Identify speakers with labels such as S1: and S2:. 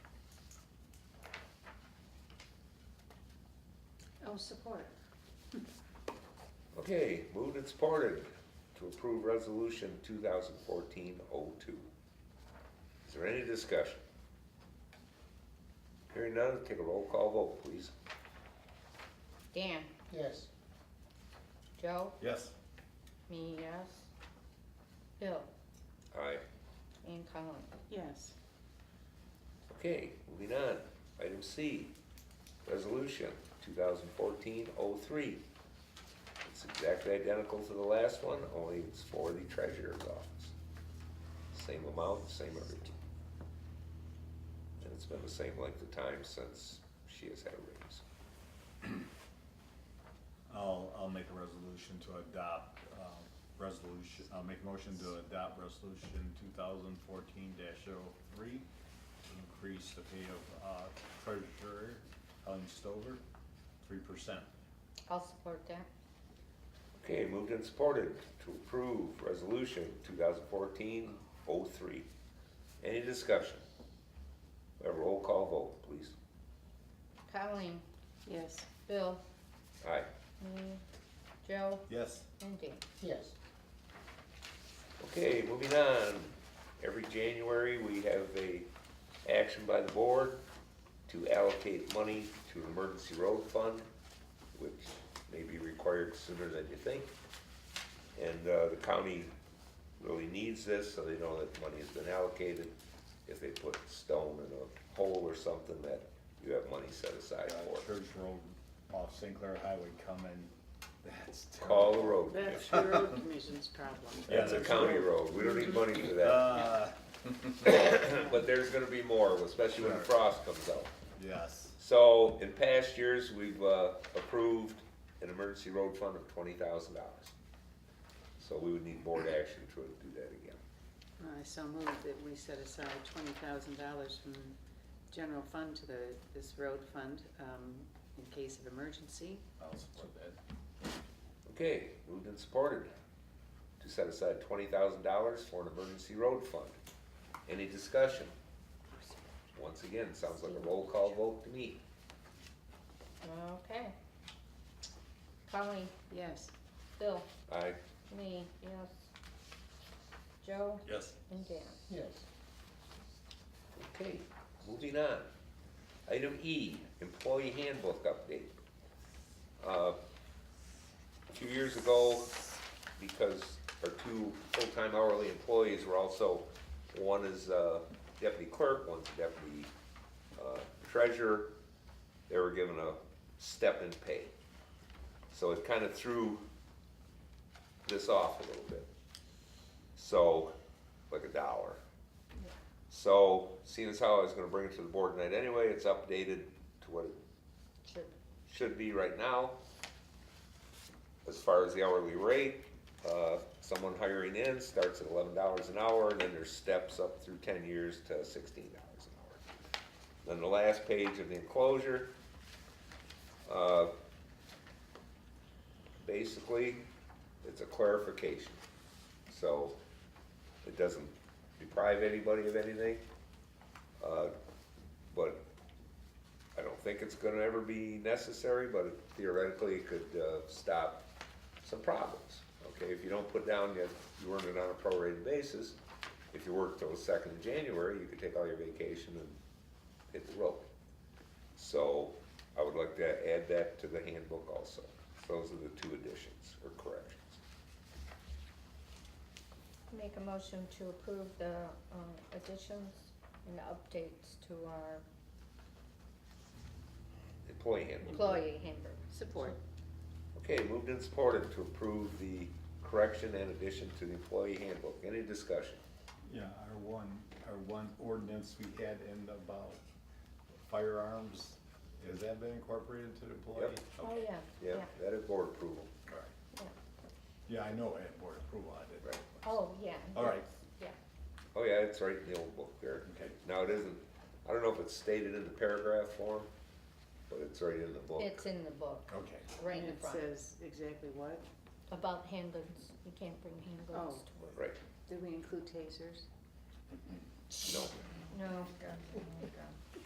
S1: Oh, support.
S2: Okay, moved and supported to approve resolution 2014-02. Is there any discussion? Hearing none, take a roll call vote, please.
S3: Dan,
S4: Yes.
S3: Joe,
S5: Yes.
S3: me, yes. Bill
S2: Aye.
S3: and Colleen.
S1: Yes.
S2: Okay, moving on. Item C, resolution 2014-03. It's exactly identical to the last one, only it's for the treasurer's office. Same amount, same everything. And it's been the same length of time since she has had a raise.
S5: I'll, I'll make a resolution to adopt, um, resolution, I'll make a motion to adopt resolution two thousand fourteen 3 Increase the pay of, uh, treasurer Helen Stover, three percent.
S3: I'll support that.
S2: Okay, moved and supported to approve resolution 2014-03. Any discussion? A roll call vote, please.
S3: Colleen,
S1: Yes.
S3: Bill,
S2: Aye.
S3: me, Joe
S5: Yes,
S3: and Dan.
S4: Yes.
S2: Okay, moving on. Every January, we have a action by the board to allocate money to an emergency road fund, which may be required sooner than you think. And uh, the county really needs this, so they know that money has been allocated. If they put stone in a hole or something, that you have money set aside
S5: uh,
S2: for. it.
S5: Church Road off St. Clair Highway coming, that's
S2: Call
S5: terrible.
S2: the road.
S1: That's the road commission's problem.
S2: That's a county road. We don't need money for that.
S5: Uh,
S2: But there's gonna be more, especially when the
S5: Sure.
S2: frost comes out.
S5: yes,
S2: So in past years, we've uh, approved an emergency road fund of twenty thousand dollars. So we would need board action to do that again.
S1: I so moved that we set aside twenty thousand dollars from general fund to the, this road fund, um, in case of emergency.
S5: I'll support that.
S2: Okay, moved and supported to set aside twenty thousand dollars for an emergency road fund. Any discussion? Once again, sounds like a roll call vote to me.
S3: Okay. Colleen,
S1: Yes.
S3: Bill,
S2: Aye.
S3: me, yes. Joe
S5: Yes.
S3: and Dan.
S4: Yes.
S2: Okay, moving on. Item E, employee handbook update. Uh, A few years ago, because our two full-time hourly employees were also, one is uh, deputy clerk, one's deputy uh, treasurer, they were given a step in pay. So it kind of threw this off a little bit. So, like a dollar. So, seeing as how I was gonna bring it to the board tonight anyway, it's updated to what it
S3: Should,
S2: should be right now. As far as the hourly rate, uh, someone hiring in starts at eleven dollars an hour, and then there's steps up through ten years to sixteen dollars an hour. Then the last page of the enclosure, uh, basically, it's a clarification. So, it doesn't deprive anybody of anything, uh, but I don't think it's gonna ever be necessary, but theoretically it could, uh, stop some problems. Okay, if you don't put down yet, you earned it on a prorated basis, if you work till the second of January, you could take all your vacation and hit the road. So I would like to add that to the handbook also. Those are the two additions or corrections.
S3: make a motion to approve the um, additions and updates to our
S2: Employee handbook.
S3: employee handbook.
S1: Support.
S2: Okay, moved and supported to approve the correction and addition to the employee handbook. Any discussion?
S5: Yeah, our one, our one ordinance we had in about firearms, has that been incorporated to the employee?
S2: Yep.
S3: Oh,
S5: Okay.
S3: yeah, yeah,
S2: Yeah, that is board approval.
S5: All right.
S3: yeah.
S5: Yeah, I know I had board approval on it.
S3: Oh, yeah.
S5: All right.
S3: Yeah.
S2: Oh, yeah, it's right in the old book there.
S5: Okay.
S2: Now, it isn't, I don't know if it's stated in the paragraph form, but it's right in the book.
S3: It's in the book,
S5: Okay,
S3: right in
S1: And
S3: the
S1: it
S3: front,
S1: says exactly what?
S3: about handguns, you can't bring handguns
S1: Oh.
S3: to work.
S2: Right,
S1: Did we include tasers?
S2: no,
S3: No,